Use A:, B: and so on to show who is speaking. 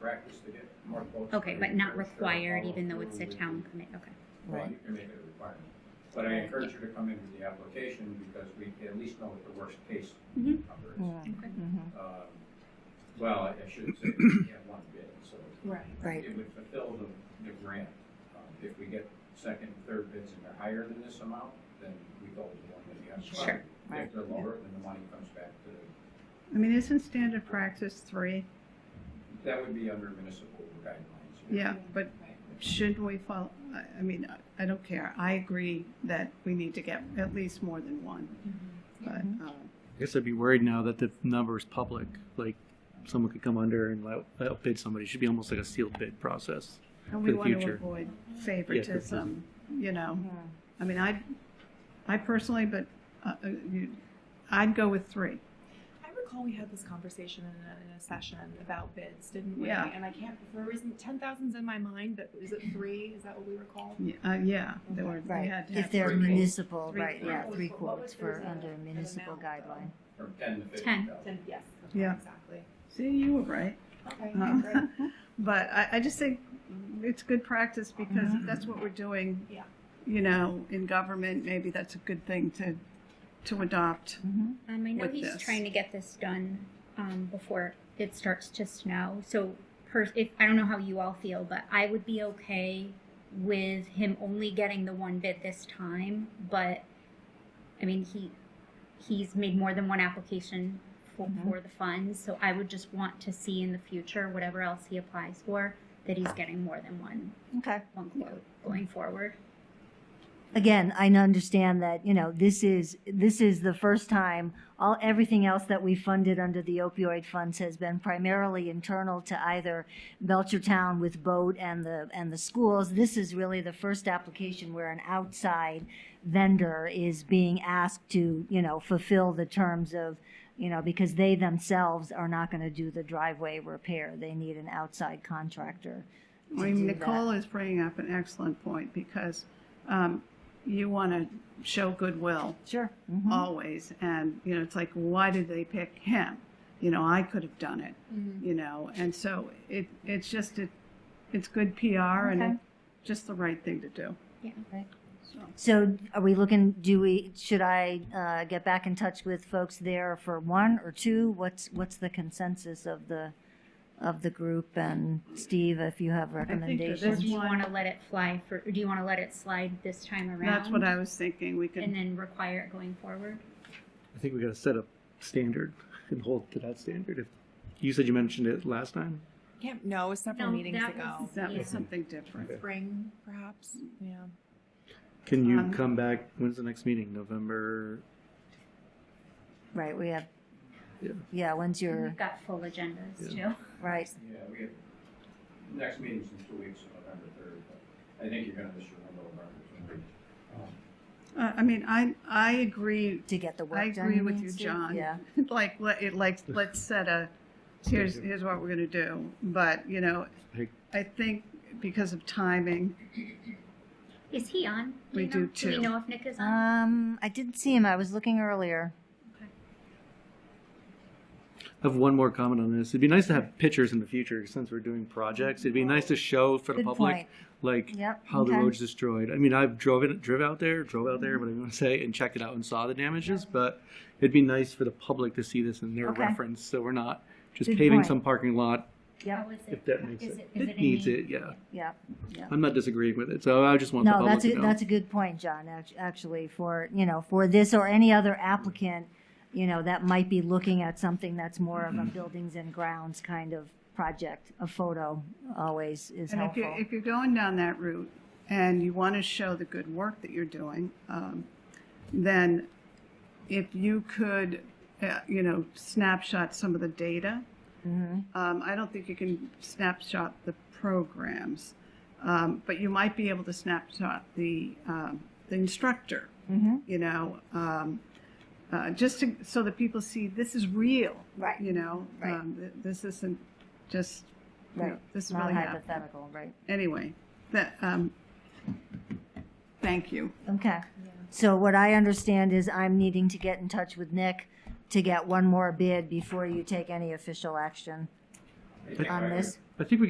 A: practice to get more votes.
B: Okay,
A: for
B: but
A: you,
B: not
A: sure,
B: required,
A: follow
B: even though
A: through
B: it's a
A: with-
B: town commit, okay.
A: Well,
C: Right.
A: you can make it a requirement. But I encourage you to come in with the application because we at least know what the worst case
B: Mhm.
A: number is.
C: Yeah.
B: Okay.
C: Mhm.
A: Um, Well, I I shouldn't say we have one bid, so
D: Right.
C: Right.
A: it would fulfill the, the grant. Um, If we get second, third bids and they're higher than this amount, then we go with the one that we have.
B: Sure.
A: If they're lower, then the money comes back to,
D: I mean, isn't standard practice three?
A: that would be under municipal guidelines.
D: Yeah, but should we follow, I, I mean, I- I don't care. I agree that we need to get at least more than one.
C: Mm-hmm.
D: But, uh,
E: I guess I'd be worried now that the number is public. Like, someone could come under and out- outbid somebody. It should be almost like a sealed bid process.
D: and we
E: For the
D: want to
E: future.
D: avoid favoritism, you know?
C: Yeah.
D: I mean, I, I personally, but, uh, uh, you, I'd go with three.
F: I recall we had this conversation in a, in a session about bids, didn't we?
D: Yeah.
F: And I can't, for a reason, ten thousand's in my mind, but is it three? Is that what we recall?
D: Yeah, uh, yeah, they were, they
C: Right,
D: had to have
C: if they're
D: three.
C: municipal,
D: Three
C: right, yeah,
F: quotes.
C: three
F: What was
C: quotes
F: the
C: for
F: result?
C: under a
F: An
C: municipal
F: amount, though.
C: guideline.
A: From ten to fifty
B: Ten.
A: thousand.
F: Ten, yes. okay,
D: Yeah.
F: Exactly.
D: See, you were right.
F: Okay,
D: Uh,
F: great.
D: But I, I just think it's good practice because
C: Mm-hmm.
D: if that's what we're doing.
F: Yeah.
D: You know, in government, maybe that's a good thing to, to adopt.
C: Mhm.
B: Um, I know
D: With
B: he's
D: this.
B: trying to get this done, um, before it starts to snow, so per, if, I don't know how you all feel, but I would be okay with him only getting the one bid this time, but, I mean, he, he's made more than one application for,
C: Mhm.
B: for the funds, so I would just want to see in the future, whatever else he applies for, that he's getting more than one,
C: Okay.
B: one quote going forward.
C: Again, I understand that, you know, this is, this is the first time, all, everything else that we funded under the opioid funds has been primarily internal to either Belchertown with boat and the, and the schools. This is really the first application where an outside vendor is being asked to, you know, fulfill the terms of, you know, because they themselves are not going to do the driveway repair. They need an outside contractor.
D: I
C: to
D: mean,
C: do that.
D: Nicole is bringing up an excellent point because, um, you want to show goodwill
C: Sure. Mhm.
D: Uh, always. And, you know, it's like, why did they pick him? You know, I could have done it,
C: Mm-hmm.
F: Mhm.
D: you know? And so it, it's just, it, it's good PR and
C: Okay.
D: it's just the right thing to do.
B: Yeah.
C: Right.
D: So.
C: So are we looking, do we, should I uh, get back in touch with folks there for one or two? What's, what's the consensus of the, of the group? And Steve, if you have
D: that
B: Or do
D: There's
C: recommendations?
B: you
D: one-
B: want to let it fly for, or do you want to let it slide this time around?
D: That's what I was thinking. We
B: And
D: could,
B: then require it going forward?
E: I think we got to set a standard and hold to that standard. If you said you mentioned it last time,
F: Yeah, no, it was several
B: No,
F: meetings
B: that
F: ago.
B: was-
D: that
B: Yeah.
D: was something different.
F: Spring, perhaps, yeah.
E: can you
D: Um,
E: come back? When's the next meeting? November.
C: Right, we have,
E: Yeah.
C: yeah, when's your,
B: We've got full agendas too.
C: right,
A: Yeah, we have, next meeting's in two weeks, November third, but I think you're gonna miss your window of opportunity. Um,
D: Uh, I mean, I, I agree.
C: to get the work
D: I
C: done?
D: agree with
C: mean,
D: you,
C: Steve?
D: John.
C: Yeah.
D: Like, let, it like, let's set a, here's, here's what we're gonna do. But, you know,
E: Hey.
D: I think because of timing,
B: Is he on?
D: We
B: you know? Do
D: do too. Uh,
B: we know if Nick is on?
C: Um, I didn't see him. I was looking earlier.
E: I have one more comment on this. It'd be nice to have pictures in the future since we're doing projects. It'd be nice to show for the
C: Good
E: public
C: point.
E: like
C: Yep,
E: how the
C: okay.
E: road's destroyed. I mean, I've drove it, drove out there, drove out there, whatever you want to say, and checked it out and saw the damages. But it'd be nice for the public to see this in their
C: Okay.
E: reference, so we're not just
C: Good
E: paving
C: point.
E: some parking lot
C: Yep,
B: How is
E: if
B: it?
E: that makes
B: Is
E: it.
B: is in
E: needs
B: the-
E: it, yeah.
C: yep.
E: I'm not disagreeing with it, so I just want the
C: No,
E: public
C: that's
E: to
C: a,
E: know.
C: that's a good point, John, act- actually, for, you know, for this or any other applicant, you know, that might be looking at something that's more of a
E: Mm-hmm.
C: buildings and grounds kind of project. A photo always is
D: and if
C: helpful.
D: you're, if you're going down that route and you wanna show the good work that you're doing, um, then if you could, uh, you know, snapshot some of the data,
C: Mhm.
D: Um, I don't think you can snapshot the programs, um, but you might be able to snapshot the um, the instructor.
C: Mhm.
D: You know, um, uh, just to, so that people see this is real.
C: Right.
D: You know,
C: Right.
D: um, th- this isn't just. you know,
C: Right.
D: this is
C: Not
D: really happening.
C: hypothetical, right?
D: Anyway, that. Um, thank you.
C: Okay. So what I understand is I'm needing to get in touch with Nick to get one more bid before you take any official action
A: I think
C: on
A: I would-
C: this.
E: I think we